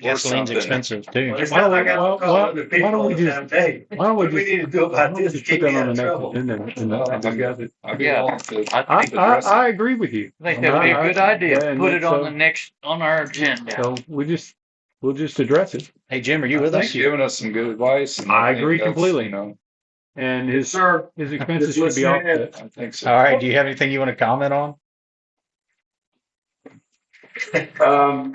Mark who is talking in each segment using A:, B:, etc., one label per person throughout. A: Gasoline's
B: something.
A: expensive too.
C: It's
D: Why
C: not
D: don't we-
C: like I
D: why-
C: don't
D: why-
C: call other
D: why
C: people
D: don't
C: all
D: we
C: the
D: just-
C: time, hey,
D: Why don't we
C: What do we
D: just-
C: need to do
D: why
C: about
D: don't we
C: this to
D: just
C: keep
D: put that
C: me
D: on
C: out of
D: the next
C: trouble?
D: agenda and I think we got it.
B: I
E: Yeah.
B: belong to.
E: I
B: keep
E: think, I,
B: addressing.
E: I agree with you.
D: I
E: I'm
D: think that'd be
E: not-
D: a good
E: I-
D: idea.
E: and
D: Put it on
E: so-
D: the next, on our agenda.
E: So we just, we'll just address it.
A: Hey, Jim, are you with
B: I think
A: us?
B: Giving us some good advice. and
E: I
B: think
E: agree
B: that's,
E: completely.
B: You know,
E: And his,
C: sir,
E: his expenses
C: Just
E: should be
C: listening
E: offset.
B: I think so.
A: All right. Do you have anything you want to comment on?
C: um,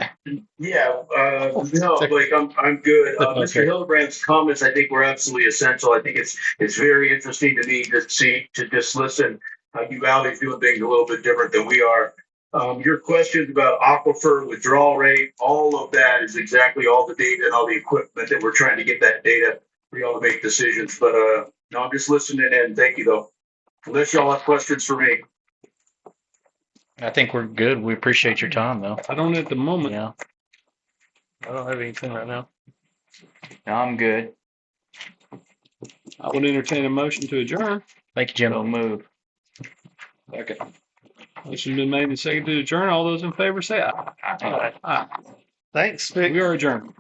C: yeah, uh, no, like, I'm, I'm good. Uh, Mr.
A: Okay.
C: Hillebrand's comments, I think were absolutely essential. I think it's, it's very interesting to me to see, to just listen. Uh, you Valley's doing things a little bit different than we are. Um, your questions about aquifer withdrawal rate, all of that is exactly all the data and all the equipment that we're trying to get that data for y'all to make decisions. But, uh, no, I'm just listening in. Thank you though. Unless y'all have questions for me.
A: I think we're good. We appreciate your time though.
E: I don't at the moment.
A: Yeah.
E: I don't have anything right now.
D: I'm good.
E: I would entertain a motion to adjourn.
A: Thank you,
D: So
A: Jim.
D: move.
B: Okay.
E: Motion's been made and seconded to adjourn. All those in favor say aye.
D: All right.
E: Aye.
A: Thanks,
E: We are adjourned.